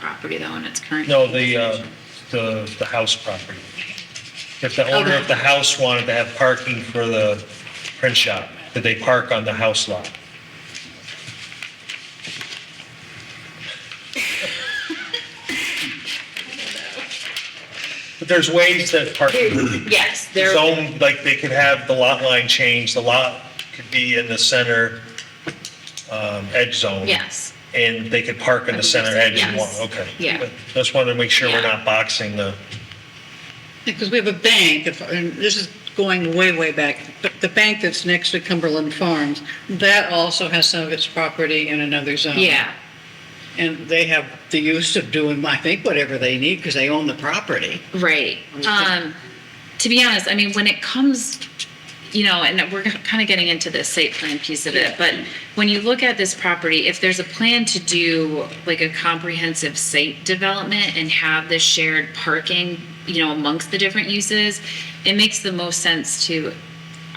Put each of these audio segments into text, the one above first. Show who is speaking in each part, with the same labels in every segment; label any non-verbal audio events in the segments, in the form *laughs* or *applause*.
Speaker 1: property though in its current.
Speaker 2: No, the, uh, the, the house property. If the owner of the house wanted to have parking for the print shop, did they park on the house lot? But there's ways that parking could be
Speaker 1: Yes, there,
Speaker 2: zone, like they could have the lot line change, the lot could be in the center, um, edge zone.
Speaker 1: yes.
Speaker 2: And they could park in the center edge and one, okay.
Speaker 1: Yeah.
Speaker 2: But Just wanted to make sure we're
Speaker 1: Yeah.
Speaker 2: not boxing the,
Speaker 3: Because we have a bank, if- and this is going way, way back, but the bank that's next to Cumberland Farms, that also has some of its property in another zone.
Speaker 1: Yeah,
Speaker 3: And they have the use of doing, I think, whatever they need because they own the property.
Speaker 1: right. Um, to be honest, I mean, when it comes, you know, and we're kind of getting into the site plan piece of it, but when you look at this property, if there's a plan to do like a comprehensive site development and have this shared parking, you know, amongst the different uses, it makes the most sense to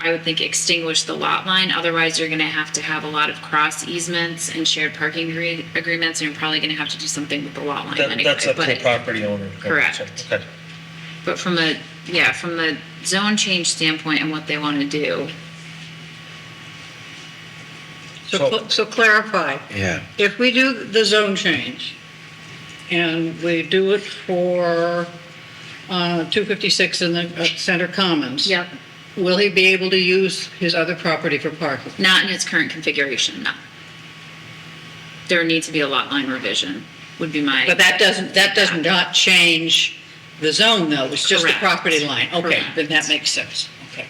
Speaker 1: I would think extinguish the lot line, otherwise you're gonna have to have a lot of cross easements and shared parking agree- agreements, and you're probably gonna have to do something with the lot line
Speaker 2: that-
Speaker 1: anyway.
Speaker 2: that's up to the
Speaker 1: but-
Speaker 2: property owner.
Speaker 1: Correct.
Speaker 2: Okay.
Speaker 1: But from a, yeah, from the zone change standpoint and what they wanna do,
Speaker 3: So
Speaker 2: So-
Speaker 3: cl- so clarify,
Speaker 4: Yeah.
Speaker 3: if we do the zone change and we do it for uh, 256 in the uh, Center Commons.
Speaker 1: yep,
Speaker 3: Will he be able to use his other property for parking?
Speaker 1: not in its current configuration, no. There needs to be a lot line revision, would be my.
Speaker 3: But that doesn't, that does not change the zone though, it's just the
Speaker 1: Correct.
Speaker 3: property line. Okay,
Speaker 1: Correct.
Speaker 3: then that makes sense. Okay.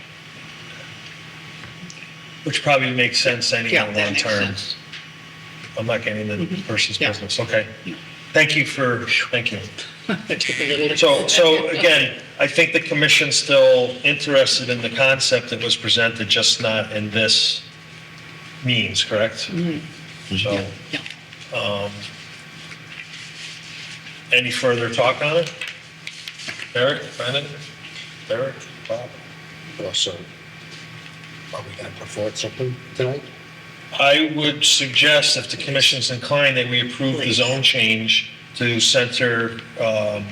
Speaker 2: Which probably makes sense
Speaker 3: Yeah,
Speaker 2: anyhow,
Speaker 3: that
Speaker 2: long
Speaker 3: makes
Speaker 2: term.
Speaker 3: sense. *laughs* Mm-hmm.
Speaker 2: I'm not getting into the person's
Speaker 3: Yeah.
Speaker 2: business, okay? Thank you for, thank you.
Speaker 3: That took a little-
Speaker 2: So, so again, I think the commission's still interested in the concept that was presented, just not in this means, correct? So,
Speaker 3: Yeah.
Speaker 2: um, any further talk on it? Eric, Brendan, Eric, Bob?
Speaker 4: Also, are we going to put forward something tonight?
Speaker 2: I would suggest, if the commission's inclined, that we approve the zone change to center, um,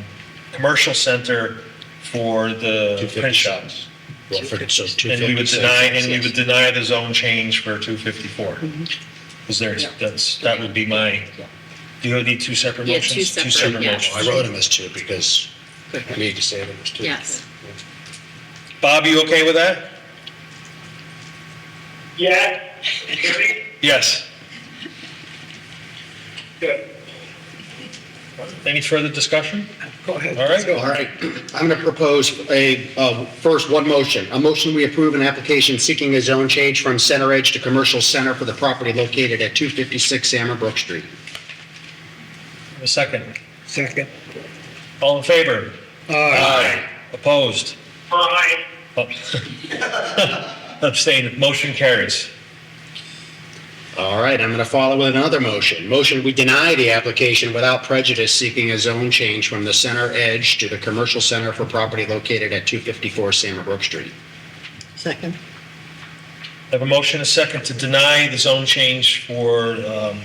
Speaker 2: commercial center for the print shops.
Speaker 4: Well, for- so
Speaker 2: And we would
Speaker 4: 256.
Speaker 2: deny, and we would deny the zone change for 254.
Speaker 1: Mm-hmm.
Speaker 2: Is there, that's, that would be my, do you need two separate
Speaker 1: Yeah,
Speaker 2: motions?
Speaker 1: two separate, yeah.
Speaker 2: motions.
Speaker 4: I wrote him as two because I need to save him as two.
Speaker 1: Yes.
Speaker 2: Bob, you okay with that?
Speaker 5: Yeah. Hear me?
Speaker 2: Yes.
Speaker 5: Good.
Speaker 2: Any further discussion?
Speaker 4: Go ahead.
Speaker 2: All right.
Speaker 4: All right. I'm going to propose a, uh, first, one motion. A motion we approve an application seeking a zone change from center edge to commercial center for the property located at 256 Sammerbrook Street.
Speaker 2: A second.
Speaker 6: Second.
Speaker 2: All in favor? Aye. Opposed?
Speaker 5: Aye.
Speaker 2: Oh. *laughs* Abstained. Motion carries.
Speaker 4: All right, I'm going to follow with another motion. Motion, we deny the application without prejudice seeking a zone change from the center edge to the commercial center for property located at 254 Sammerbrook Street.
Speaker 3: Second.
Speaker 2: I have a motion, a second, to deny the zone change for um,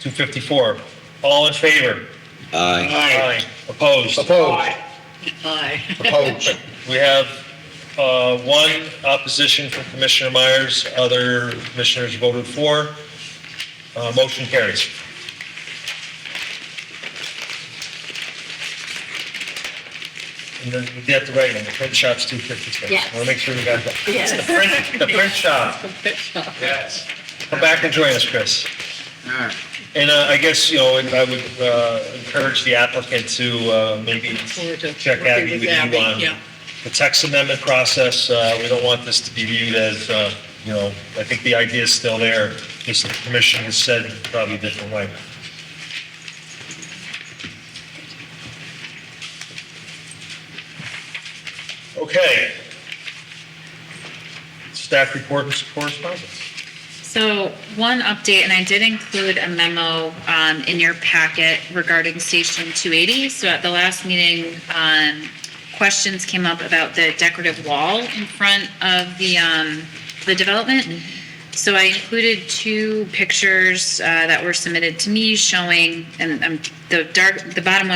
Speaker 2: 254. All in favor? Aye. Opposed?
Speaker 4: Opposed?
Speaker 3: Aye.
Speaker 4: Opposed.
Speaker 2: We have uh, one opposition from Commissioner Myers, other commissioners voted for. Uh, Motion carries. And then we have to write on the print shop's 253.
Speaker 1: Yes.
Speaker 2: I want to make sure we got that.
Speaker 1: Yes.
Speaker 2: The print, the print shop.
Speaker 3: *laughs*
Speaker 5: Yes.
Speaker 2: Come back and join us, Chris.
Speaker 4: All right.
Speaker 2: And uh, I guess, you know, I would uh, encourage the applicant to uh, maybe
Speaker 3: Forward to
Speaker 2: check
Speaker 3: working
Speaker 2: Abby
Speaker 3: with
Speaker 2: with you
Speaker 3: Abby,
Speaker 2: on
Speaker 3: yeah.
Speaker 2: the text amendment process. Uh, We don't want this to be viewed as, uh, you know, I think the idea is still there. Just the commission has said it probably a different way. Okay. Staff report and correspondence.
Speaker 1: So one update, and I did include a memo um, in your packet regarding Station 280. So at the last meeting, um, questions came up about the decorative wall in front of the, um, the development. So I included two pictures uh, that were submitted to me showing, and um, the dark, the bottom one.